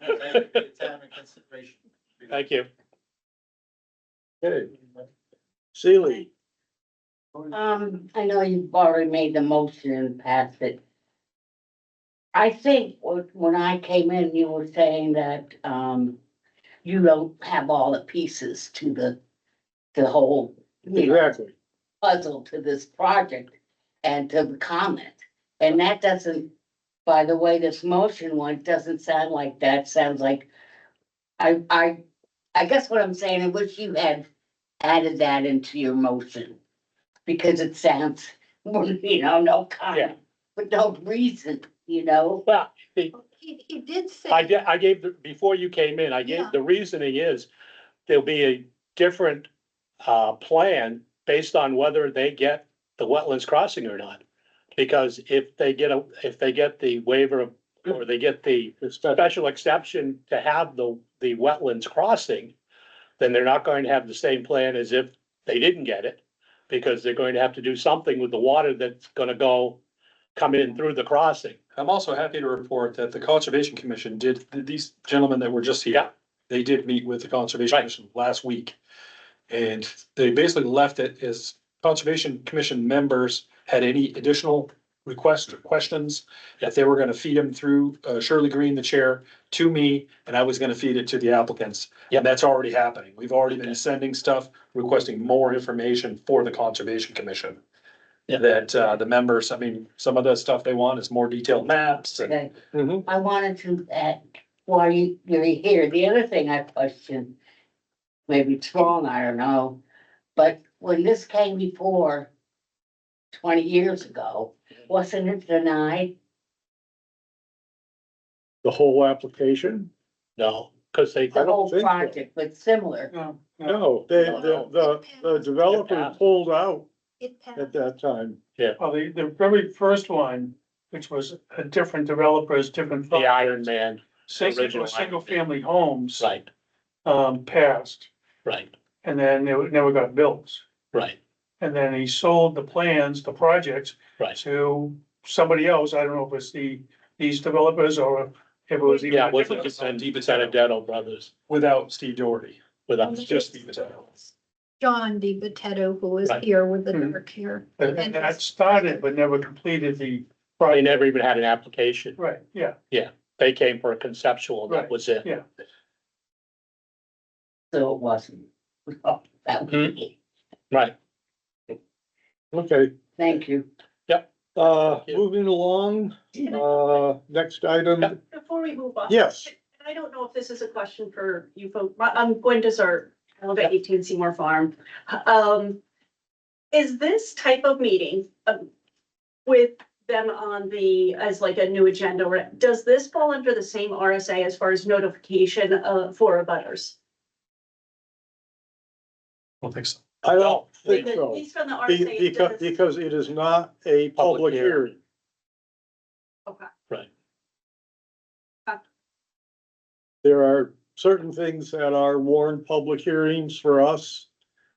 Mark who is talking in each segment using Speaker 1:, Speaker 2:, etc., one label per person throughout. Speaker 1: appreciate your time and consideration.
Speaker 2: Thank you.
Speaker 3: Okay, Sealy,
Speaker 4: Um, I know you've already made the motion and passed it. I think when when I came in, you were saying that, um, you don't have all the pieces to the, the whole, you know,
Speaker 3: exactly.
Speaker 4: puzzle to this project and to the comment. And that doesn't, by the way, this motion one doesn't sound like that, sounds like, I, I, I guess what I'm saying, I wish you had added that into your motion. Because it sounds, you know, no comment, but no reason, you know?
Speaker 2: Well,
Speaker 5: He, he did say.
Speaker 2: I ga- I gave, the before you came in, I gave,
Speaker 5: Yeah.
Speaker 2: the reasoning is there'll be a different uh, plan based on whether they get the wetlands crossing or not. Because if they get a, if they get the waiver or they get the
Speaker 3: It's that-
Speaker 2: special exception to have the, the wetlands crossing, then they're not going to have the same plan as if they didn't get it, because they're going to have to do something with the water that's gonna go, come in through the crossing.
Speaker 6: I'm also happy to report that the Conservation Commission did, th- these gentlemen that were just
Speaker 2: Yeah.
Speaker 6: here, they did meet with the Conservation
Speaker 2: Right.
Speaker 6: Commission last week. And they basically left it as Conservation Commission members had any additional requests or questions. That they were gonna feed them through uh, Shirley Green, the chair, to me, and I was gonna feed it to the applicants.
Speaker 2: Yeah.
Speaker 6: And that's already happening. We've already been sending stuff requesting more information for the Conservation Commission.
Speaker 2: Yeah.
Speaker 6: That uh, the members, I mean, some of the stuff they want is more detailed maps and
Speaker 4: Okay.
Speaker 3: Mhm.
Speaker 4: I wanted to add, while you, you're here, the other thing I question, maybe it's wrong, I don't know, but when this came before twenty years ago, wasn't it denied?
Speaker 3: The whole application?
Speaker 2: No, because they,
Speaker 4: The
Speaker 3: don't
Speaker 4: whole
Speaker 3: think so.
Speaker 4: project, but similar,
Speaker 1: No, no,
Speaker 3: No, they, the, the, the developer pulled out
Speaker 5: It passed.
Speaker 3: at that time.
Speaker 7: Well, the, the very first one, which was a different developers, different.
Speaker 2: the Iron Man, original Iron
Speaker 7: Single, single
Speaker 2: Man.
Speaker 7: family homes,
Speaker 2: right,
Speaker 7: um, passed,
Speaker 2: right,
Speaker 7: and then they were- never got built.
Speaker 2: right,
Speaker 7: And then he sold the plans, the projects
Speaker 2: right.
Speaker 7: to somebody else. I don't know if it's the, these developers or if it was. even
Speaker 2: Yeah,
Speaker 7: a
Speaker 2: it wasn't
Speaker 7: different-
Speaker 2: just on Benedetto Brothers
Speaker 6: without Steve Doherty.
Speaker 2: without,
Speaker 6: just the potato.
Speaker 5: John Di Potato, who was
Speaker 2: Right.
Speaker 5: here with the
Speaker 7: Mhm.
Speaker 5: dark hair.
Speaker 7: And and that started, but never completed the
Speaker 2: they
Speaker 7: project.
Speaker 2: never even had an application.
Speaker 7: Right, yeah,
Speaker 2: They came for a conceptual, that
Speaker 7: Right,
Speaker 2: was it.
Speaker 7: yeah.
Speaker 4: so it wasn't. Oh, That was
Speaker 2: Hmm.
Speaker 4: it.
Speaker 2: Right,
Speaker 3: Okay,
Speaker 4: Thank you.
Speaker 3: uh,
Speaker 2: Yeah.
Speaker 3: moving along, uh, next item,
Speaker 8: Before we move on.
Speaker 3: yes.
Speaker 8: And I don't know if this is a question for you folks, but I'm Gwen Desert, I live at eighteen Seymour Farm. Um, is this type of meeting, um, with them on the, as like a new agenda, or does this fall under the same RSA as far as notification, uh, for abutters?
Speaker 6: I don't think so.
Speaker 3: I don't
Speaker 2: No.
Speaker 3: think
Speaker 8: At
Speaker 3: so.
Speaker 8: least from the
Speaker 3: Be-
Speaker 8: RSA. it
Speaker 3: Because,
Speaker 8: does-
Speaker 3: because it is not a public
Speaker 2: Public hearing.
Speaker 3: hearing.
Speaker 8: Okay.
Speaker 2: Right.
Speaker 8: Okay.
Speaker 3: There are certain things that are warned public hearings for us,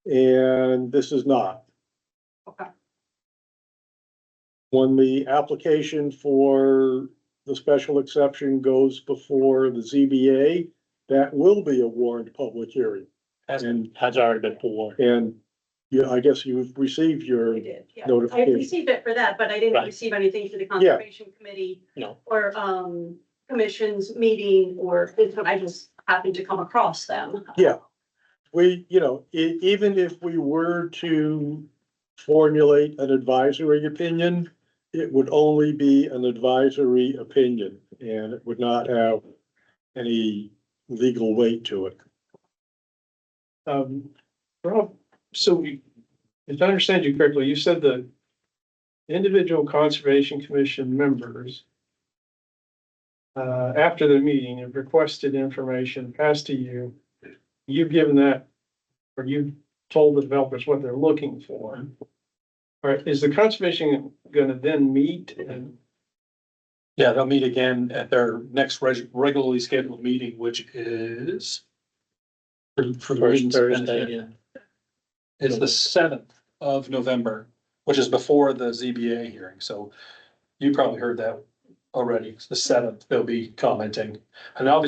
Speaker 3: and this is not.
Speaker 8: Okay.
Speaker 3: When the application for the special exception goes before the ZBA, that will be a warned public hearing.
Speaker 6: Has been.
Speaker 3: And,
Speaker 2: has already been forward.
Speaker 3: and you, I guess you've received your
Speaker 8: I did, yeah. I
Speaker 3: Notification.
Speaker 8: received it for that, but I didn't
Speaker 2: Right.
Speaker 8: receive anything for the conservation committee.
Speaker 2: No.
Speaker 8: Or, um, commission's meeting, or, I just happened to come across them.
Speaker 3: Yeah. we, you know, e- even if we were to formulate an advisory opinion, it would only be an advisory opinion and it would not have any legal weight to it.
Speaker 6: Um, Rob, so you- if I understand you correctly, you said the individual conservation commission members uh, after the meeting have requested information passed to you. You've given that, or you've told the developers what they're looking for. All right, is the conservation gonna then meet and? Yeah, they'll meet again at their next regularly scheduled meeting, which is for
Speaker 2: First Thursday, yeah.
Speaker 6: it's the seventh of November, which is before the ZBA hearing, so you probably heard that already. It's the seventh, they'll be commenting. And obviously